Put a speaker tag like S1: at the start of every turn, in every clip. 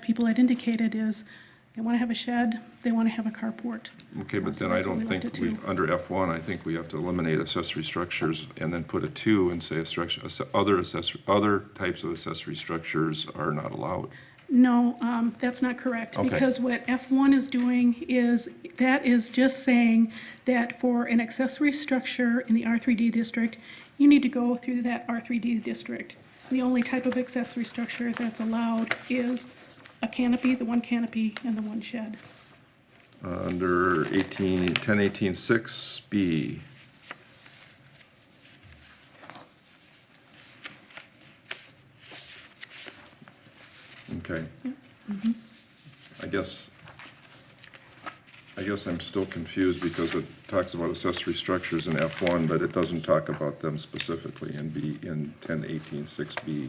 S1: people had indicated is they want to have a shed, they want to have a carport.
S2: Okay, but
S1: So
S2: then I
S1: that's what
S2: don't
S1: we left
S2: think
S1: it
S2: we,
S1: to.
S2: under F1, I think we have to eliminate accessory structures and then put a two and say a structure, asse- other accessory, other types of accessory structures are not allowed.
S1: No, um, that's not correct.
S2: Okay.
S1: Because what F1 is doing is, that is just saying that for an accessory structure in the R3D district, you need to go through that R3D district. The only type of accessory structure that's allowed is a canopy, the one canopy, and the one shed.
S2: Under 18, 1018-6B, okay. I guess, I guess I'm still confused because it talks about accessory structures in F1, but it doesn't talk about them specifically in B, in 1018-6B.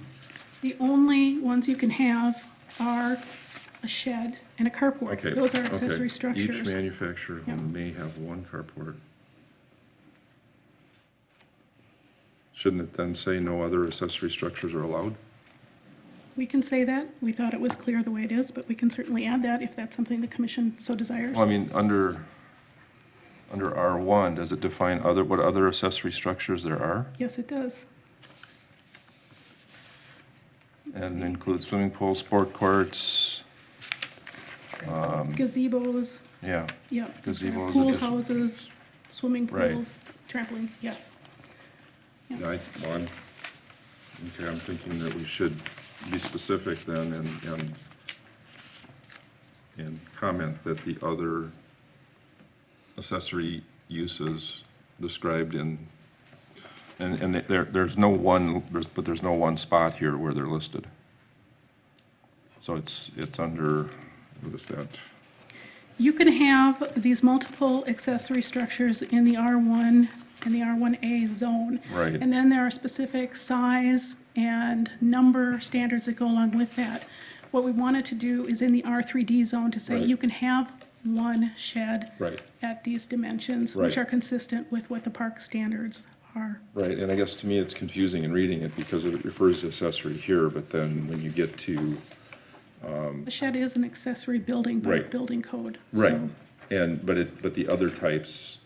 S1: The only ones you can have are a shed and a
S2: Okay.
S1: carport. Those are
S2: okay.
S1: accessory
S2: Each
S1: structures.
S2: manufacturer
S1: Yeah.
S2: home may have one carport. Shouldn't it then say no other accessory structures are allowed?
S1: We can say that. We thought it was clear the way it is, but we can certainly add that if that's something the commission so desires.
S2: Well, I mean, under, under R1, does it define other, what other accessory structures there are?
S1: Yes, it does.
S2: And includes swimming pools, sport courts,
S1: Gazebos,
S2: yeah.
S1: yep.
S2: Gazebos,
S1: Pool
S2: addition-
S1: houses, swimming
S2: Right.
S1: pools, trampolines, yes.
S2: Yeah, I, well, I'm, okay, I'm thinking that we should be specific then and, and, and comment that the other accessory uses described in, and, and there, there's no one, there's, but there's no one spot here where they're listed. So it's, it's under, what is that?
S1: You can have these multiple accessory structures in the R1 and the R1A zone.
S2: Right.
S1: And then there are specific size and number standards that go along with that. What we wanted to do is in the R3D zone to say
S2: Right.
S1: you can have one shed
S2: Right.
S1: at these dimensions, which
S2: Right.
S1: are consistent with what the park standards are.
S2: Right, and I guess to me, it's confusing in reading it because it refers to accessory here, but then when you get to
S1: A shed is an accessory building by
S2: Right.
S1: building code.
S2: Right,
S1: so-
S2: and, but it, but the other types,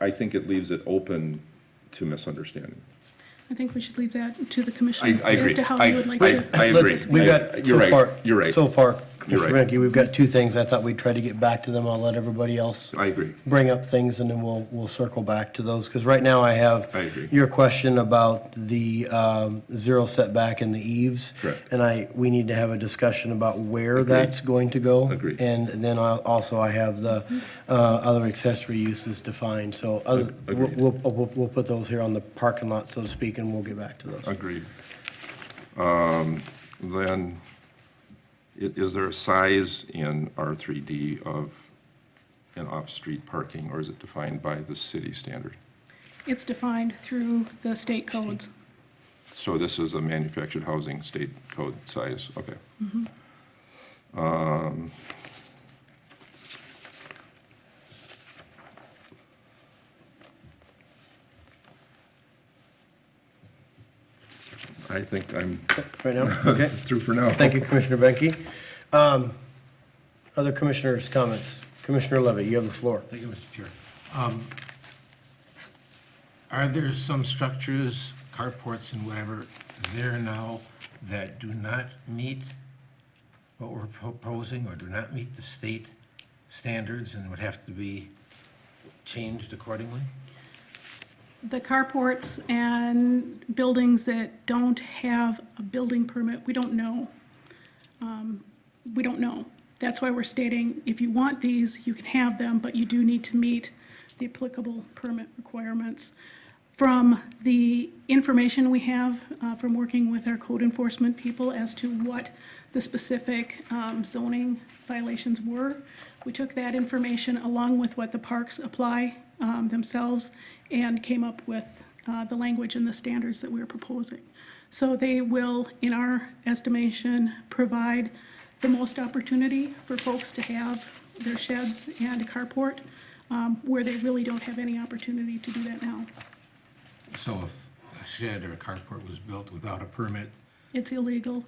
S2: I, I think it leaves it open to misunderstanding.
S1: I think we should leave that to the commission
S2: I, I agree.
S1: as to how you would like
S2: I-
S1: to.
S2: I agree.
S3: Let's- We've
S2: I-
S3: got,
S2: You're
S3: so
S2: right,
S3: far.
S2: you're right.
S3: So far,
S2: You're
S3: Commissioner
S2: right.
S3: Menke, we've got two things. I thought we'd try to get back to them. I'll let everybody else
S2: I agree.
S3: bring up things and then we'll, we'll circle back to those. Because right now I have.
S2: I agree.
S3: Your question about the um, zero setback in the eaves.
S2: Correct.
S3: And I, we need to have a discussion about where that's going to go.
S2: Agreed.
S3: And then I, also I have the uh, other accessory uses defined. So other,
S2: Ag-
S3: we'll,
S2: agreed.
S3: we'll, we'll- we'll put those here on the parking lot, so to speak, and we'll get back to those.
S2: Agreed. Um, then, i- is there a size in R three D of an off-street parking, or is it defined by the city standard?
S1: It's defined through the state codes.
S2: So this is a manufactured housing state code size, okay. Um, I think I'm
S3: Right now? Okay.
S2: through for now.
S3: Thank you, Commissioner Benke. Um, Other commissioners' comments? Commissioner Levy, you have the floor.
S4: Thank you, Mr. Chair. Um, Are there some structures, carports and whatever, there now that do not meet what we're proposing or do not meet the state standards and would have to be changed accordingly?
S1: The carports and buildings that don't have a building permit, we don't know. Um, We don't know. That's why we're stating, if you want these, you can have them, but you do need to meet the applicable permit requirements. From the information we have, uh, from working with our code enforcement people as to what the specific um, zoning violations were, we took that information along with what the parks apply um, themselves and came up with uh, the language and the standards that we are proposing. So they will, in our estimation, provide the most opportunity for folks to have their sheds and carport um, where they really don't have any opportunity to do that now.
S4: So if a shed or a carport was built without a permit,
S1: It's illegal